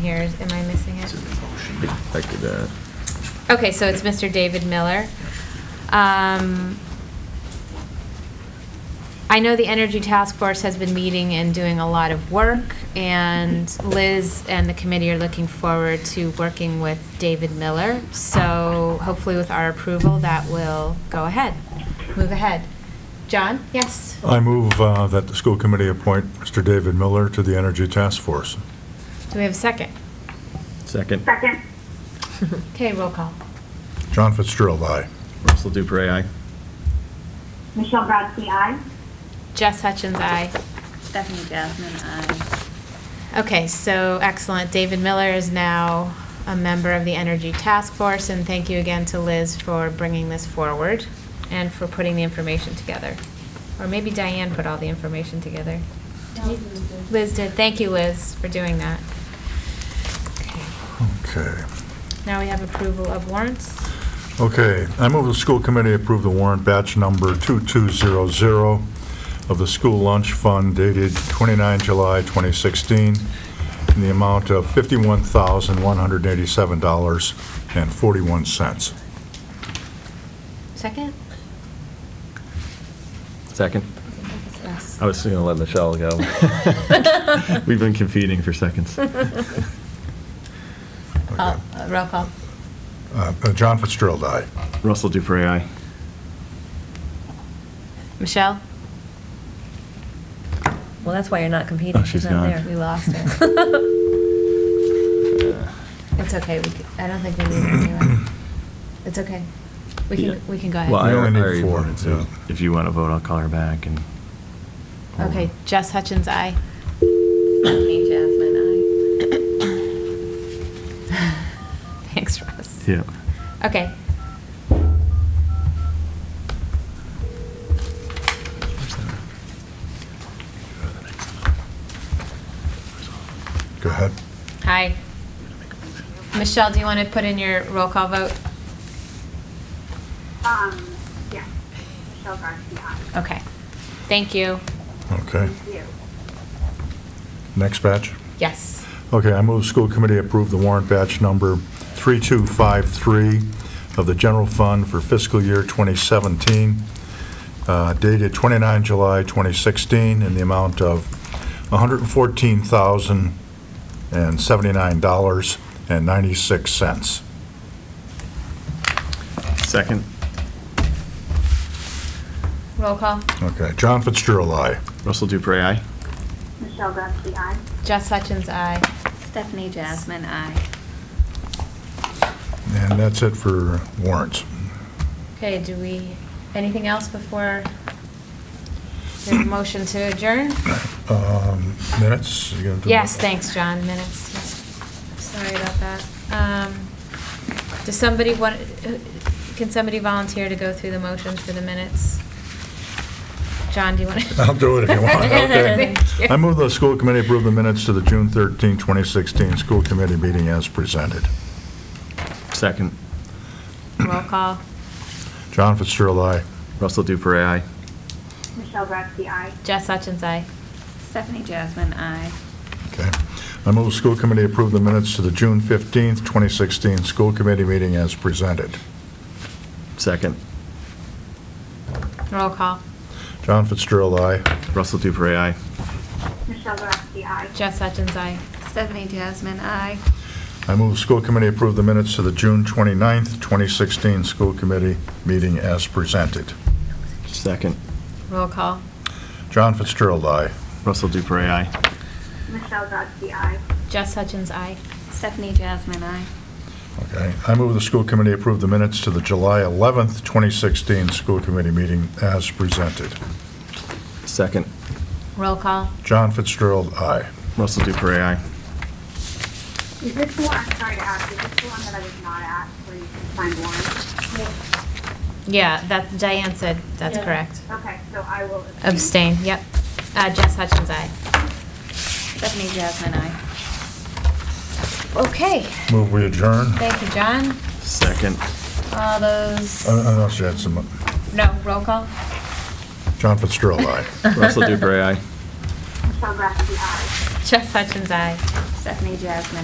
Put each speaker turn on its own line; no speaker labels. here, is- am I missing it?
I could, uh,
Okay, so it's Mr. David Miller. Um, I know the Energy Task Force has been meeting and doing a lot of work, and Liz and the committee are looking forward to working with David Miller. So hopefully with our approval, that will go ahead, move ahead. John? Yes?
I move uh, that the school committee appoint Mr. David Miller to the Energy Task Force.
Do we have a second?
second,
Second,
Okay, roll call.
John Fitzgerald, aye.
Russell Dupre, aye.
Michelle Grotzky, aye.
Jess Hutchins, aye.
Stephanie Jasmine, aye.
Okay, so excellent. David Miller is now a member of the Energy Task Force, and thank you again to Liz for bringing this forward and for putting the information together. Or maybe Diane put all the information together. Liz did. Thank you, Liz, for doing that. Okay.
Okay.
Now we have approval of warrants.
Okay, I move the school committee approve the warrant batch number 2200 of the school lunch fund dated 29 July 2016 in the amount of $51,187.41.
Second?
Second.
Yes.
I was oh, gonna let Michelle go. We've been competing for seconds.
Uh, Roll call.
Uh, uh, John Fitzgerald, aye.
Russell Dupre, aye.
Michelle?
Well, that's why you're not competing.
Oh, she's
not
gone.
there.
We lost her. It's okay. We c I don't think we need it anyway. It's okay. We can,
Yeah.
we can go ahead.
Well, I
We only
already already
need four,
voted, so
yeah.
if you want to vote, I'll call her back and.
Okay, Jess Hutchins, aye.
Stephanie Jasmine, aye.
Thanks, Russ.
Yeah.
Okay.
Go ahead.
Hi. Michelle, do you want to put in your roll call vote?
Um, yes, Michelle Grotzky, aye.
Okay. Thank you.
Okay,
Thank you.
next batch.
Yes.
Okay, I move school committee approve the warrant batch number 3253 of the general fund for fiscal year 2017, uh, dated 29 July 2016, in the amount of $114,079.96.
Second.
Roll call.
Okay, John Fitzgerald, aye.
Russell Dupre, aye.
Michelle Grotzky, aye.
Jess Hutchins, aye.
Stephanie Jasmine, aye.
And that's it for warrants.
Okay, do we, anything else before the motion to adjourn?
Um, Minutes? you gonna do-
Yes, thanks, John, minutes. yes. Sorry about that. Um, Does somebody want, can somebody volunteer to go through the motions for the minutes? John, do you want to?
I'll do it if you want, okay.
Thank you.
I move the school committee approve the minutes to the June 13, 2016 school committee meeting as presented.
Second.
Roll call.
John Fitzgerald, aye.
Russell Dupre, aye.
Michelle Grotzky, aye.
Jess Hutchins, aye.
Stephanie Jasmine, aye.
Okay. I move the school committee approve the minutes to the June 15, 2016 school committee meeting as presented.
Second.
Roll call.
John Fitzgerald, aye.
Russell Dupre, aye.
Michelle Grotzky, aye.
Jess Hutchins, aye.
Stephanie Jasmine, aye.
I move the school committee approve the minutes to the June 29, 2016 school committee meeting as presented.
Second.
Roll call.
John Fitzgerald, aye.
Russell Dupre, aye.
Michelle Grotzky, aye.
Jess Hutchins, aye.
Stephanie Jasmine, aye.
Okay. I move the school committee approve the minutes to the July 11, 2016 school committee meeting as presented.
Second.
Roll call.
John Fitzgerald, aye.
Russell Dupre, aye.
Is this the one, I'm sorry to ask, is this the one that I was not at, where you can find warrants?
Yeah, that, Diane said, that's correct.
Okay, so I will.
Abstain, yep. Uh, Jess Hutchins, aye.
Stephanie Jasmine, aye.
Okay,
Move we adjourn.
thank you, John.
Second.
All those,
I I know she had some,
no, roll call.
John Fitzgerald, aye.
Russell Dupre, aye.
Michelle Grotzky, aye.
Jess Hutchins, aye.
Stephanie Jasmine,